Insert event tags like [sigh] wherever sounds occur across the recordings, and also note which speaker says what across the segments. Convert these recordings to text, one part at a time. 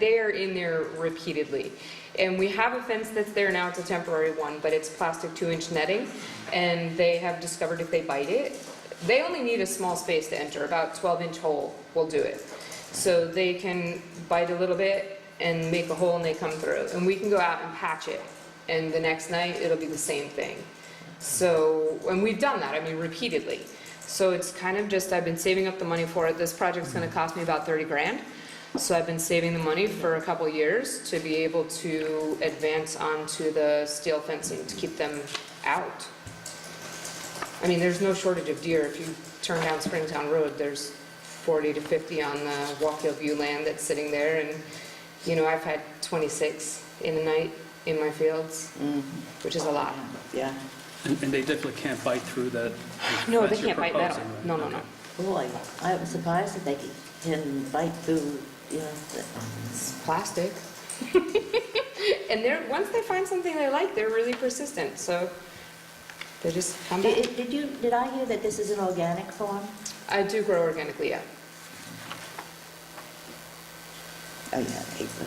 Speaker 1: they're in there repeatedly. And we have a fence that's there now, it's a temporary one, but it's plastic two-inch netting, and they have discovered if they bite it, they only need a small space to enter, about twelve-inch hole will do it. So they can bite a little bit and make a hole and they come through, and we can go out and patch it. And the next night, it'll be the same thing. So, and we've done that, I mean, repeatedly. So it's kind of just, I've been saving up the money for it. This project's gonna cost me about thirty grand. So I've been saving the money for a couple years to be able to advance onto the steel fencing to keep them out. I mean, there's no shortage of deer. If you turn down Springtown Road, there's 40 to 50 on the Walk Hill View land that's sitting there. And, you know, I've had 26 in a night in my fields, which is a lot.
Speaker 2: Yeah,
Speaker 3: And and they definitely can't bite through that.
Speaker 1: No, they
Speaker 3: fence you're
Speaker 1: can't bite metal.
Speaker 3: proposing, right?
Speaker 1: No, no, no.
Speaker 2: boy, I was surprised that they could- can bite through, you know, the-
Speaker 1: It's plastic. [laughs] And they're, once they find something they like, they're really persistent, so they just come back.
Speaker 2: Did did you, did I hear that this is an organic farm?
Speaker 1: I do grow organically, yeah.
Speaker 2: Oh, yeah, April.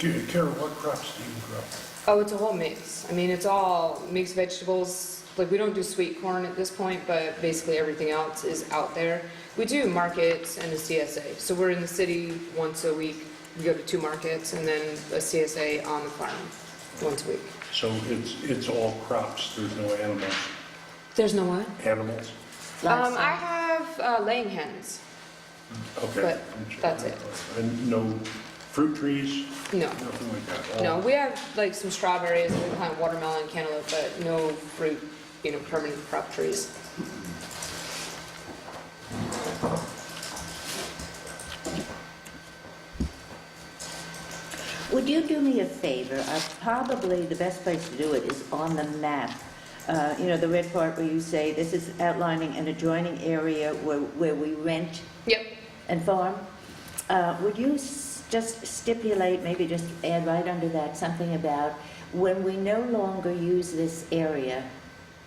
Speaker 4: Ca- Carol, what crops do you grow?
Speaker 1: Oh, it's a whole mix. I mean, it's all mixed vegetables. Like, we don't do sweet corn at this point, but basically everything else is out there. We do markets and a CSA. So we're in the city once a week. We go to two markets and then a CSA on the farm once a week.
Speaker 4: So it's, it's all crops, there's no animals,
Speaker 1: There's no what?
Speaker 4: animals?
Speaker 1: Um, I
Speaker 2: Livestock.
Speaker 1: have uh, laying hens.
Speaker 4: Okay.
Speaker 1: But that's it.
Speaker 4: And no fruit trees,
Speaker 1: No.
Speaker 4: nothing like that?
Speaker 1: No,
Speaker 4: All-
Speaker 1: we have like some strawberries, we plant watermelon, cantaloupe, but no fruit, you know, permanent crop trees.
Speaker 2: Would you do me a favor? Uh, Probably the best place to do it is on the map. Uh, You know, the red part where you say, this is outlining an adjoining area where where we rent
Speaker 1: Yep,
Speaker 2: and farm. Uh, Would you s- just stipulate, maybe just add right under that, something about when we no longer use this area,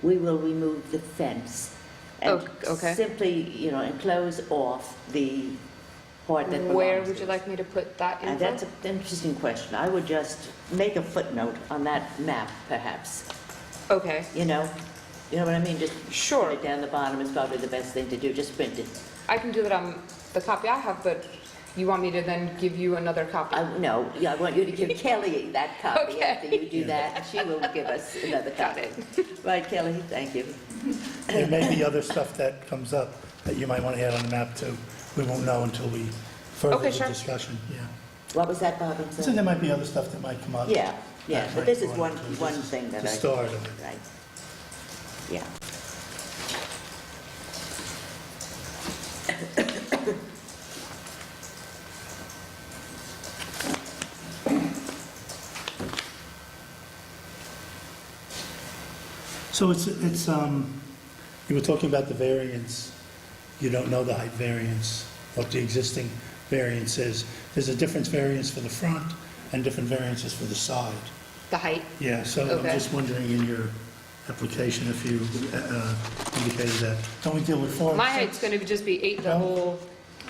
Speaker 2: we will remove the fence? and
Speaker 1: Oh, okay.
Speaker 2: Simply, you know, enclose off the part that belongs.
Speaker 1: where would
Speaker 2: to
Speaker 1: you
Speaker 2: us.
Speaker 1: like me to put that
Speaker 2: Uh,
Speaker 1: in?
Speaker 2: That's an interesting question. I would just make a footnote on that map, perhaps,
Speaker 1: Okay,
Speaker 2: you know? You know what I mean? Just put
Speaker 1: sure.
Speaker 2: it down the bottom is probably the best thing to do, just print it.
Speaker 1: I can do that on the copy I have, but you want me to then give you another copy?
Speaker 2: I, no, yeah, I want you to give Kelly that copy
Speaker 1: Okay.
Speaker 2: after you do that, and she will give us another
Speaker 1: Got
Speaker 2: copy. Right, Kelly, thank you.
Speaker 5: There may be other stuff that comes up that you might want to add on the map too. We won't know until we
Speaker 1: Okay,
Speaker 5: further
Speaker 1: sure.
Speaker 5: the discussion, yeah.
Speaker 2: What was that, Bob? I'm
Speaker 5: So
Speaker 2: sorry.
Speaker 5: there might be other stuff that might come up.
Speaker 2: Yeah, yeah,
Speaker 5: That
Speaker 2: but
Speaker 5: might
Speaker 2: this is
Speaker 5: go on
Speaker 2: one,
Speaker 5: to the-
Speaker 2: one thing that I.
Speaker 5: The start of it.
Speaker 2: Right. Yeah.
Speaker 5: So it's, it's, um, you were talking about the variance. You don't know the height variance, what the existing variance is. There's a difference variance for the front and different variances for the side.
Speaker 1: The height?
Speaker 5: Yeah, so I'm
Speaker 1: Okay.
Speaker 5: just wondering in your application if you uh, indicated that. Don't we deal with four? and
Speaker 1: My
Speaker 5: six?
Speaker 1: height's gonna be- just be eight the
Speaker 5: No.
Speaker 1: whole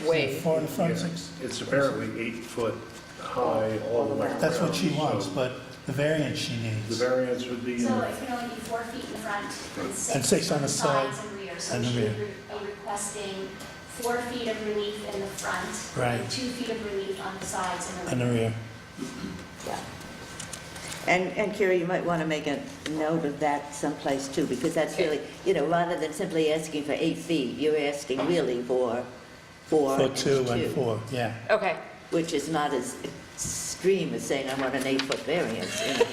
Speaker 5: Yeah,
Speaker 1: way.
Speaker 5: Four in the
Speaker 4: Yeah,
Speaker 5: front, six.
Speaker 4: It's apparently eight foot high all the way around.
Speaker 5: That's what she wants,
Speaker 4: so
Speaker 5: but the variance she
Speaker 4: The
Speaker 5: needs.
Speaker 4: variance would be,
Speaker 6: So it can only be four feet in front and six.
Speaker 5: And six on the
Speaker 6: sides
Speaker 5: side
Speaker 6: and rear. So
Speaker 5: and the
Speaker 6: she would
Speaker 5: rear.
Speaker 6: be requesting four feet of relief in the front.
Speaker 5: Right.
Speaker 6: And two feet of relief on the sides and the
Speaker 5: And
Speaker 6: rear.
Speaker 5: the rear.
Speaker 2: Yeah. And, and Kira, you might want to make a note of that someplace too, because that's really, you know, rather than simply asking for eight feet, you're asking really for four
Speaker 5: For
Speaker 2: and
Speaker 5: two and
Speaker 2: two,
Speaker 5: four, yeah.
Speaker 1: Okay,
Speaker 2: which is not as extreme as saying I want an eight-foot variance, you know.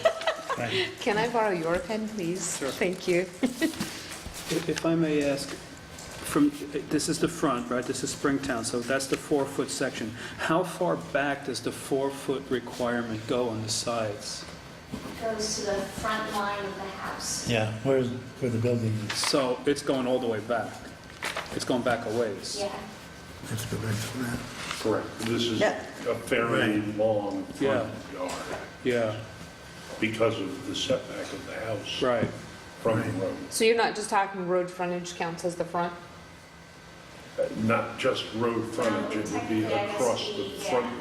Speaker 5: right.
Speaker 1: can I borrow your pen, please?
Speaker 3: Sure.
Speaker 1: Thank you.
Speaker 3: If if I may ask, from, this is the front, right? This is Springtown, so that's the four-foot section. How far back does the four-foot requirement go on the sides?
Speaker 6: Goes to the front line of the house.
Speaker 5: Yeah, where's, where the building is.
Speaker 3: So it's going all the way back. It's going back a ways.
Speaker 6: Yeah.
Speaker 5: Let's go back to that.
Speaker 4: correct, this is
Speaker 2: Yeah.
Speaker 4: a fairly long front yard
Speaker 3: Yeah,
Speaker 4: because of the setback of the house
Speaker 3: right.
Speaker 4: from the road.
Speaker 1: So you're not just talking road frontage counts as the front?
Speaker 4: not just road frontage, it would be
Speaker 6: Technically, I guess
Speaker 4: across the
Speaker 6: we- yeah.
Speaker 4: front